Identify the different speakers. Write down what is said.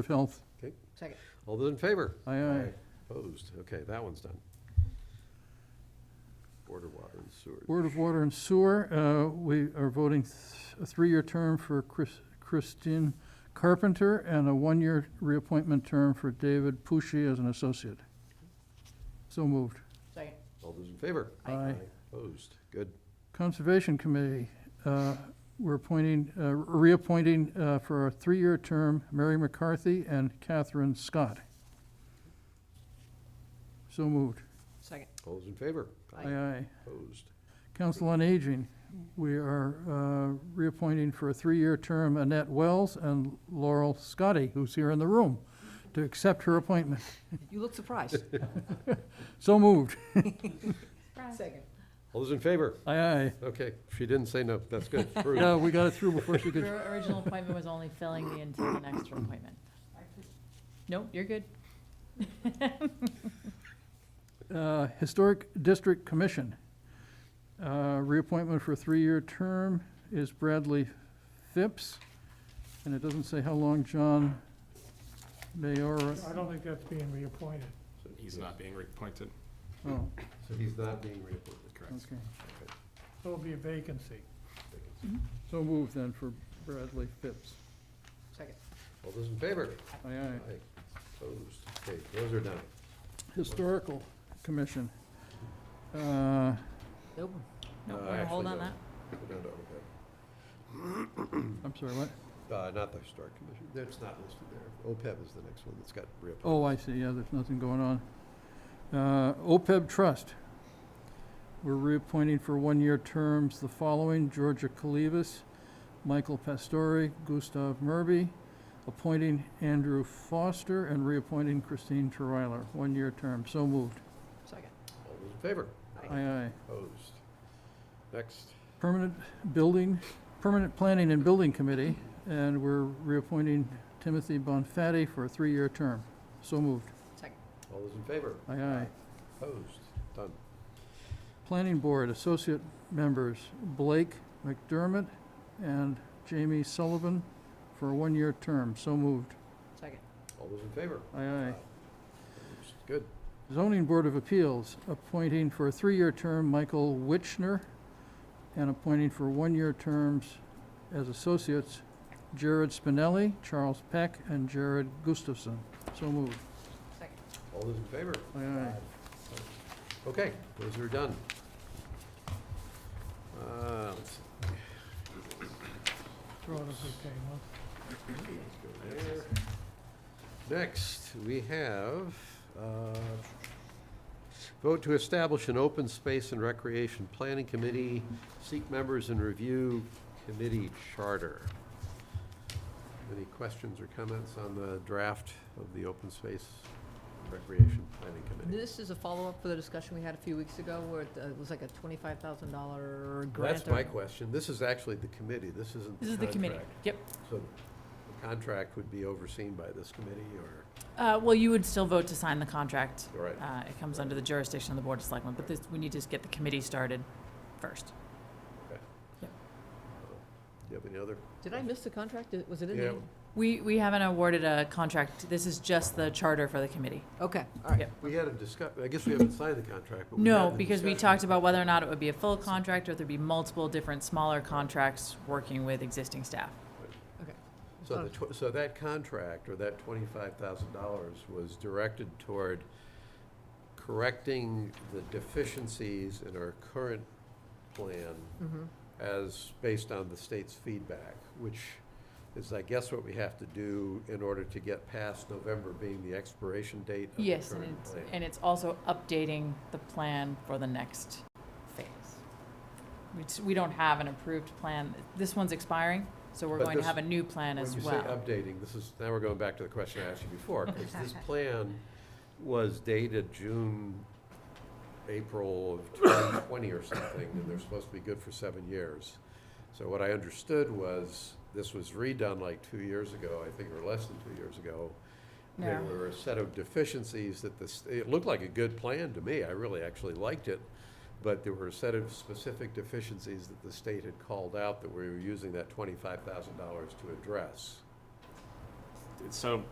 Speaker 1: of Health.
Speaker 2: Second.
Speaker 3: All those in favor?
Speaker 1: Aye, aye.
Speaker 3: Opposed? Okay, that one's done. Board of Water and Sewer.
Speaker 1: Board of Water and Sewer, uh, we are voting th- a three-year term for Chris- Christine Carpenter and a one-year reappointment term for David Pushy as an associate. So moved.
Speaker 2: Second.
Speaker 3: All those in favor?
Speaker 1: Aye. Aye.
Speaker 3: Opposed? Good.
Speaker 1: Conservation Committee, uh, we're appointing, uh, reappointing uh, for a three-year term Mary McCarthy and Catherine Scott. So moved.
Speaker 2: Second.
Speaker 3: All those in favor?
Speaker 2: Aye.
Speaker 1: Aye, aye.
Speaker 3: Opposed?
Speaker 1: Council on Aging, we are uh, reappointing for a three-year term Annette Wells and Laurel Scotty, who's here in the room, to accept her appointment.
Speaker 2: You look surprised.
Speaker 1: So moved.
Speaker 2: Second.
Speaker 3: All those in favor?
Speaker 1: Aye, aye.
Speaker 3: Okay, she didn't say no. That's good. Approved.
Speaker 1: Yeah, we got it through before she could.
Speaker 4: Your original appointment was only filling me into an extra appointment. Nope, you're good.
Speaker 1: Uh, Historic District Commission, uh, reappointment for a three-year term is Bradley Phipps, and it doesn't say how long John Mayora,
Speaker 5: I don't think that's being reappointed.
Speaker 6: He's not being reappointed,
Speaker 1: oh,
Speaker 3: So he's not being reappointed.
Speaker 6: correct?
Speaker 1: okay.
Speaker 5: There'll be a vacancy.
Speaker 1: So moved then for Bradley Phipps.
Speaker 2: Second.
Speaker 3: All those in favor?
Speaker 1: Aye, aye.
Speaker 3: Opposed? Okay, those are done.
Speaker 1: Historical Commission. Uh,
Speaker 2: Nope.
Speaker 4: Nope,
Speaker 3: Uh,
Speaker 4: we're gonna hold on
Speaker 3: actually,
Speaker 4: that.
Speaker 3: We're down to OPEB.
Speaker 1: I'm sorry, what?
Speaker 3: Uh, not the Historic Commission. That's not listed there. OPEB is the next one that's got reappointed.
Speaker 1: Oh, I see, yeah, there's nothing going on. Uh, OPEB Trust. We're reappointing for one-year terms the following: Georgia Kalivas, Michael Pastore, Gustav Murby, appointing Andrew Foster, and reappointing Christine Terweiler. One-year term, so moved.
Speaker 2: Second.
Speaker 3: All those in favor?
Speaker 1: Oh. Aye, aye.
Speaker 3: Opposed? Next.
Speaker 1: Permanent Building, Permanent Planning and Building Committee, and we're reappointing Timothy Bonfatti for a three-year term. So moved.
Speaker 2: Second.
Speaker 3: All those in favor?
Speaker 1: Aye, aye.
Speaker 3: Opposed? Done.
Speaker 1: Planning Board, Associate Members, Blake McDermott and Jamie Sullivan for a one-year term. So moved.
Speaker 2: Second.
Speaker 3: All those in favor?
Speaker 1: Aye, aye.
Speaker 3: Opposed? Good.
Speaker 1: Zoning Board of Appeals, appointing for a three-year term Michael Witchner and appointing for one-year terms as associates Jared Spinelli, Charles Peck, and Jared Gustafson. So moved.
Speaker 2: Second.
Speaker 3: All those in favor?
Speaker 1: Aye, aye.
Speaker 3: Okay, those are done. Uh, let's see,
Speaker 5: Throw it as it came up.
Speaker 3: let's go there. Next, we have, uh, vote to establish an open space and recreation planning committee, seek members and review committee charter. Any questions or comments on the draft of the open space recreation planning committee?
Speaker 2: This is a follow-up for the discussion we had a few weeks ago where it uh, it was like a twenty-five thousand dollar grant.
Speaker 3: That's
Speaker 2: or-
Speaker 3: my question. This is actually the committee. This isn't the
Speaker 4: This is the committee.
Speaker 3: contract.
Speaker 4: Yep.
Speaker 3: So the contract would be overseen by this committee or,
Speaker 4: Uh, well, you would still vote to sign the contract.
Speaker 3: all right,
Speaker 4: Uh, it comes under the jurisdiction of the Board of Selectmen, but this, we need to just get the committee started first.
Speaker 3: do you have any other?
Speaker 2: Did I miss the contract? Did- Was it in
Speaker 3: Yeah.
Speaker 2: there?
Speaker 4: We, we haven't awarded a contract. This is just the charter for the committee.
Speaker 2: Okay, all right.
Speaker 4: Yep.
Speaker 3: We had a discuss, I guess we haven't signed the contract, but we had
Speaker 4: No,
Speaker 3: the
Speaker 4: because we
Speaker 3: discussion.
Speaker 4: talked about whether or not it would be a full contract or there'd be multiple different smaller contracts working with existing staff.
Speaker 3: So the, tw- so that contract or that twenty-five thousand dollars was directed toward correcting the deficiencies in our current plan
Speaker 2: Mhm.
Speaker 3: as based on the state's feedback, which is, I guess, what we have to do in order to get past November being the expiration date of the
Speaker 4: Yes, and
Speaker 3: current
Speaker 4: it's,
Speaker 3: plan.
Speaker 4: and it's also updating the plan for the next phase. Which, we don't have an approved plan. This one's expiring, so we're
Speaker 3: But
Speaker 4: going to
Speaker 3: this-
Speaker 4: have a new plan as well.
Speaker 3: When you say updating, this is, now we're going back to the question I asked you before, because this plan was dated June, April of 2020 or something, and they're supposed to be good for seven years. So what I understood was, this was redone like two years ago, I think, or less than two years ago. There
Speaker 4: No.
Speaker 3: were a set of deficiencies that this, it looked like a good plan to me, I really actually liked it, but there were a set of specific deficiencies that the state had called out that we were using that twenty-five thousand dollars to address.
Speaker 6: So